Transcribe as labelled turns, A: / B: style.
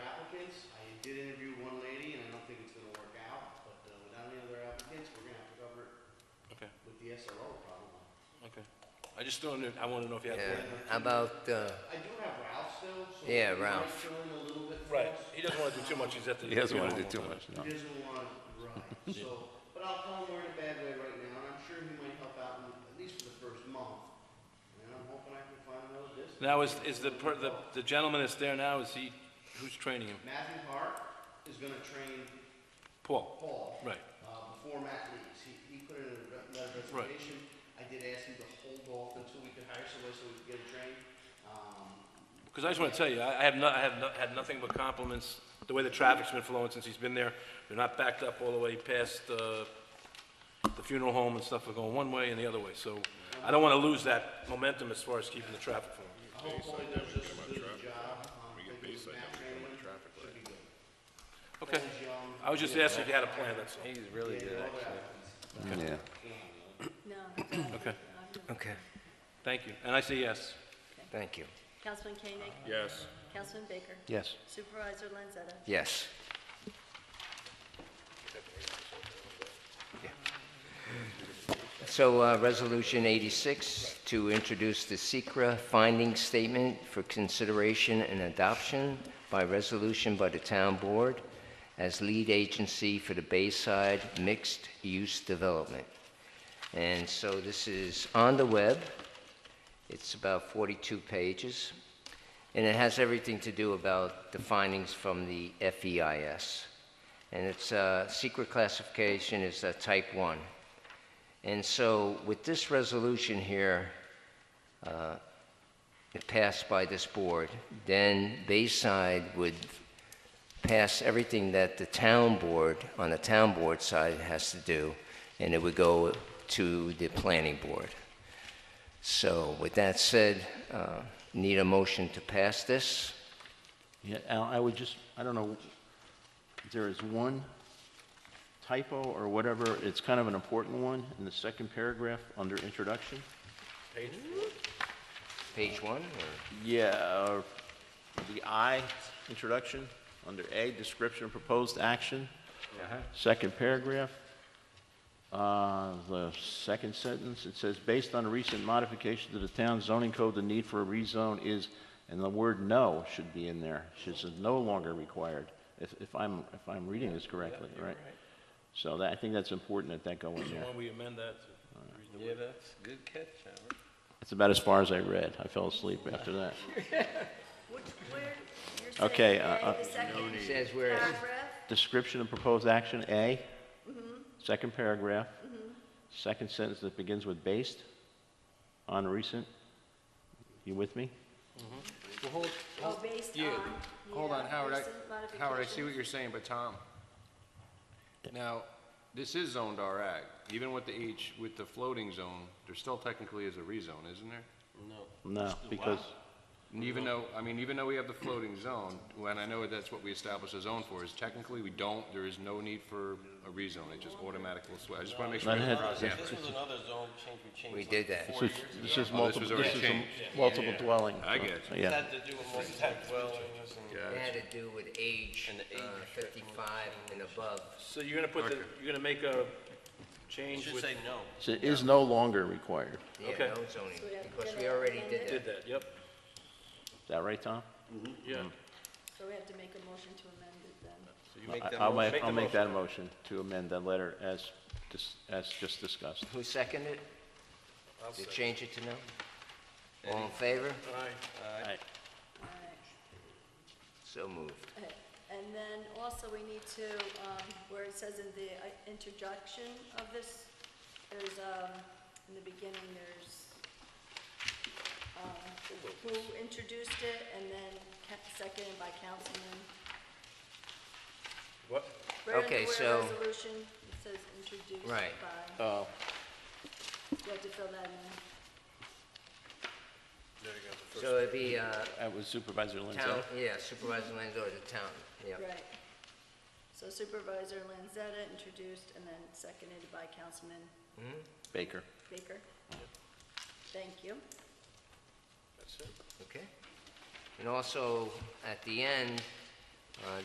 A: did interview one lady, and I don't think it's gonna work out, but uh, without any other applicants, we're gonna have to cover it
B: Okay,
A: with the SRO probably.
B: okay. I just don't, know- I want to know if you have.
C: Yeah, how about, uh,
A: I do have Ralph still, so.
C: Yeah,
A: he might
C: Ralph.
A: fill in a little bit for
B: Right,
A: us.
B: he doesn't want to do too much, he's at the.
D: He doesn't want to do
B: funeral
D: too
B: all the
D: much,
B: time.
D: no.
A: He doesn't want, right, so, but I'll tell him we're in a bad way right now, and I'm sure he might help out in- at least for the first month. And I'm hoping I can find another business.
B: Now, is, is the, per- the the gentleman that's there now, is he, who's training him?
A: Matthew Hart is gonna train
B: Paul?
A: Paul.
B: Right.
A: Uh, before Matt leaves, he, he put in a re- letter of
B: Right.
A: resignation. I did ask him to hold off until we could hire somebody so we could get it trained. Um,
B: Because I just want to tell you, I I have not, I have not, had nothing but compliments, the way the traffic's been flowing since he's been there. They're not backed up all the way past, uh, the funeral home and stuff are going one way and the other way, so I don't want to lose that momentum as far as keeping the traffic flowing.
A: hopefully there's just as good a job. um, thinking with Matt training him, should be good.
B: Okay,
A: He's young.
B: I was just asking if you had a plan, that's all.
E: He's really good,
A: Yeah, all
E: actually.
A: that.
D: Yeah.
F: No. I don't.
B: Okay.
F: I'm not.
C: okay,
B: Thank you, and I say yes.
C: thank you.
F: Councilman Koenig?
E: Yes.
F: Councilman Baker?
D: Yes.
F: Supervisor Lanzetta?
C: Yes. So, uh, Resolution 86, to introduce the Secra finding statement for consideration and adoption by resolution by the town board as lead agency for the Bayside mixed-use development. And so this is on the web. It's about 42 pages, and it has everything to do about the findings from the FEIS. And its uh, secret classification is uh, type 1. And so with this resolution here, uh, it passed by this board, then Bayside would pass everything that the town board, on the town board side, has to do, and it would go to the planning board. So with that said, uh, need a motion to pass this?
G: Yeah, Al, I would just, I don't know, there is one typo or whatever, it's kind of an important one, in the second paragraph under introduction.
C: Page one, or?
G: Yeah, uh, the I, introduction, under A, description of proposed action, second paragraph. Uh, The second sentence, it says, "Based on recent modification to the town zoning code, the need for a rezone is," and the word "no" should be in there. It says, "no longer required," if if I'm, if I'm reading this correctly, right? So that, I think that's important that that go in
B: So
G: there.
B: why don't we amend that to
E: Yeah, that's a good catch, Howard.
G: That's about as far as I read. I fell asleep after that.
F: Which, where, you're saying
G: Okay,
F: A,
G: uh, uh,
F: the second
C: It says where it's...
F: paragraph?
G: Description of proposed action, A. Second paragraph. Second sentence that begins with based on recent. You with me?
E: Well, hold,
F: Oh, based on,
E: yeah. Hold on,
F: yeah,
E: Howard,
F: recent
E: I, Howard, I see what
F: modifications.
E: you're saying, but Tom, now, this is zoned R ag, even with the H, with the floating zone, there still technically is a rezone, isn't there?
G: No, because,
E: And
G: Mm-hmm.
E: Even though, I mean, even though we have the floating zone, when I know that's what we established a zone for, is technically we don't, there is no need for a rezone, it just automatically, sw- I just wanna make sure.
G: Not
E: we have the
G: ahead.
E: process
G: This
E: right.
H: another zone change we changed.
C: We did that.
G: this is, this is
E: Oh, this
G: multiple,
E: was
G: this
E: already
G: is
E: changed.
G: a multiple dwelling.
E: I get you.
G: Yeah.
H: Had to do with multi-family dwellings and.
C: It had to do with age,
H: And the age
C: uh,
H: restriction.
C: 55 and above.
B: So you're gonna put the, you're gonna make a
H: You
B: change
H: should
B: with,
H: say no.
G: So it is no longer required.
C: Yeah,
B: Okay.
C: no zoning,
F: So we have to
C: because
F: get
C: we
F: it
C: already
F: amended?
C: did that.
B: did that, yep,
G: Is that right, Tom?
B: yeah.
F: So we have to make a motion to amend it then.
G: I- I'll
B: Make
G: make,
B: the
G: I'll make that motion to amend that letter as, dis- as just discussed.
C: Who seconded it? To change it to no? All in favor?
G: Aye.
F: All right.
C: So moved.
F: Okay. And then also we need to, um, where it says in the uh, introduction of this, there's, um, in the beginning, there's, um, who introduced it and then ca- seconded by councilman.
B: What?
F: Where in-
C: Okay,
F: where
C: so-
F: resolution it says introduced by.
C: Right.
G: Oh,
F: You have to fill that in.
C: So it'd be uh,
G: that was Supervisor
C: town,
G: Lindell.
C: yeah, supervisor Lanzo to town, yeah.
F: Right. So Supervisor Lanzetta introduced and then seconded by Councilman
G: Baker.
F: Baker. Thank you.
C: Okay. And also, at the end,